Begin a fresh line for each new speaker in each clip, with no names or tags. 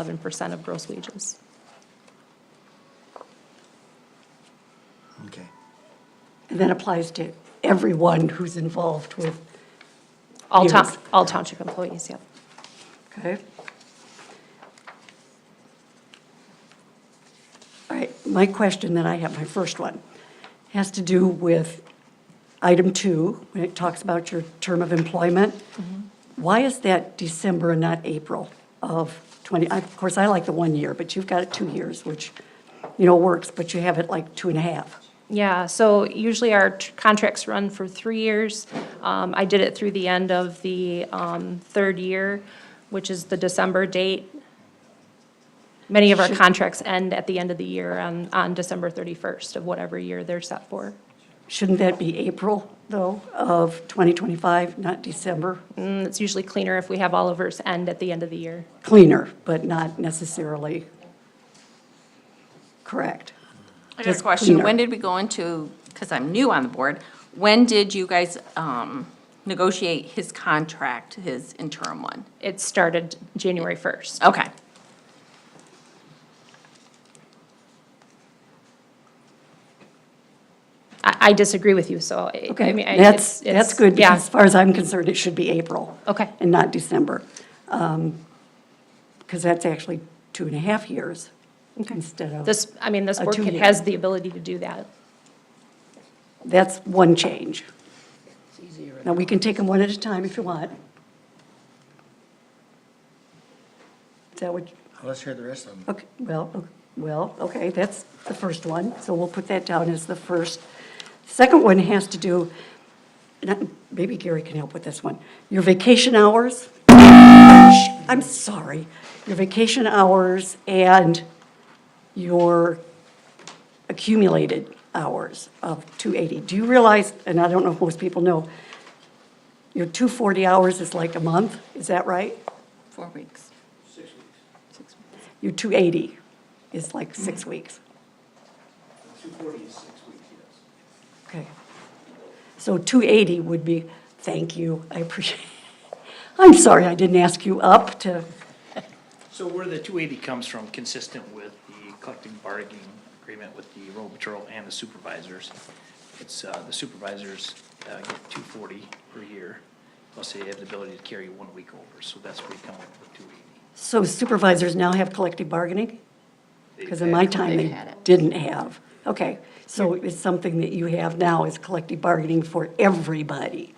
11% of gross wages.
Okay.
And that applies to everyone who's involved with,
All town,
Yes.
all township employees, yep.
okay? All right, my question that I have, my first one, has to do with item two, when it talks about your term of employment. Why is that December and not April of 20, I- of course, I like the one year, but you've got it two years, which, you know, works, but you have it like two and a half.
Yeah, so usually our tr- contracts run for three years. Um, I did it through the end of the, um, third year, which is the December date. Many of our contracts end at the end of the year on, on December thirty-first of whatever year they're set for.
Shouldn't that be April, though, of 2025, not December?
And Mm, it's usually cleaner if we have all of ours end at the end of the year.
Cleaner, but not necessarily correct.
I got a
Just
question.
cleaner.
When did we go into, because I'm new on the board, when did you guys um, negotiate his contract, his interim one?
It started January first.
Okay.
I, I disagree with you, so. I- I
Okay,
mean, I- it's-
that's,
it's-
that's good,
Yeah.
because as far as I'm concerned, it should be April.
Okay.
And not December. Because that's actually two and a half years instead of,
This, I mean, this
A
board
two-year.
has the ability to do that.
that's one change. Now, we can take them one at a time if you want. Is that what?
Well, Let's hear the rest of them.
Okay, well, o- well, okay, that's the first one, so we'll put that down as the first. Second one has to do, and I- maybe Gary can help with this one, your vacation hours. Shh, I'm sorry, your vacation hours and your accumulated hours of 280. Do you realize, and I don't know if most people know, your 240 hours is like a month, is that right?
Four weeks.
Your 280 is like six weeks.
Two forty is six weeks, yes.
Okay. So 280 would be, thank you, I appreciate, I'm sorry I didn't ask you up to,
So where the two eighty comes from, consistent with the collective bargaining agreement with the road patrol and the supervisors. It's, uh, the supervisors, uh, get two forty per year, plus they have the ability to carry one week over, so that's where you come up with two eighty.
so supervisors now have collective bargaining? Because in my time,
They've
they
had it.
didn't have. Okay, so it's something that you have now is collective bargaining for everybody,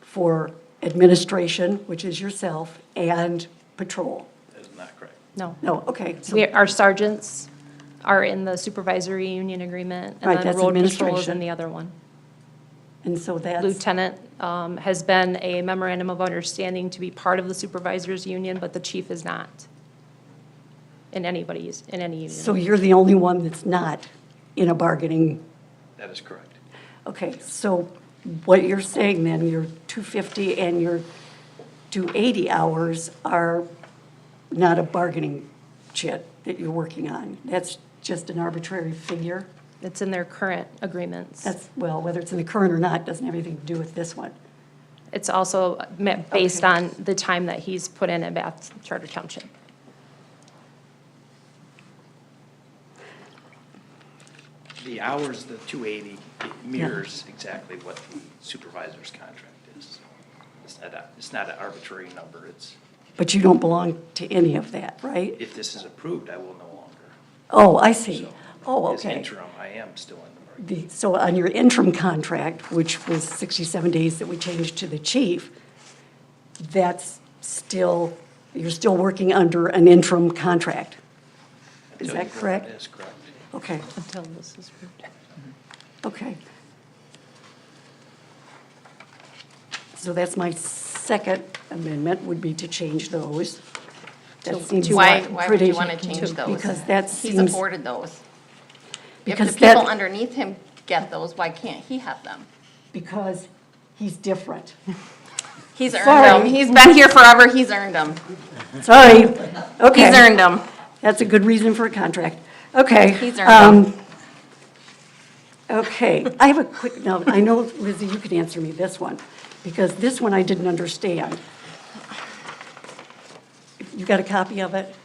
for administration, which is yourself, and patrol.
That is not correct.
No.
No, okay, so
We, our sergeants are in the supervisory union agreement. And
Right,
then
that's
road patrol is in
administration.
the other one.
And so that's,
Lieutenant um, has been a memorandum of understanding to be part of the supervisors union, but the chief is not. In anybody's, in any
so
union.
you're the only one that's not in a bargaining
That is correct.
Okay, so what you're saying then, your 250 and your 280 hours are not a bargaining chit that you're working on. That's just an arbitrary figure.
It's in their current agreements.
That's, well, whether it's in the current or not, doesn't have anything to do with this one.
It's also met based
Okay.
on the time that he's put in at Bath Charter Township.
The hours, the two eighty, it mirrors exactly what the supervisor's contract is. It's not a, it's not an arbitrary number, it's,
But you don't belong to any of that, right?
if this is approved, I will no longer.
Oh, I see.
So,
Oh,
As
okay.
interim, I am still in the market.
The- So on your interim contract, which was 67 days that we changed to the chief, that's still, you're still working under an interim contract? Is
Until you
that
vote on
correct?
this, correct.
Okay,
Until this is approved.
okay. So that's my second amendment, would be to change those. That seems
Why, why would
pretty-
you want to change those?
Because that
He's
seems,
afforded those. If the
because that-
people underneath him get those, why can't he have them?
because he's different.
He's earned
Sorry.
them. He's been here forever. He's earned them.
Sorry, okay.
He's earned them.
That's a good reason for a contract. Okay.
He's earned
um, Okay, I have a quick note. I know, Lizzie, you can answer me this one, because this one I didn't understand. You got a copy of it?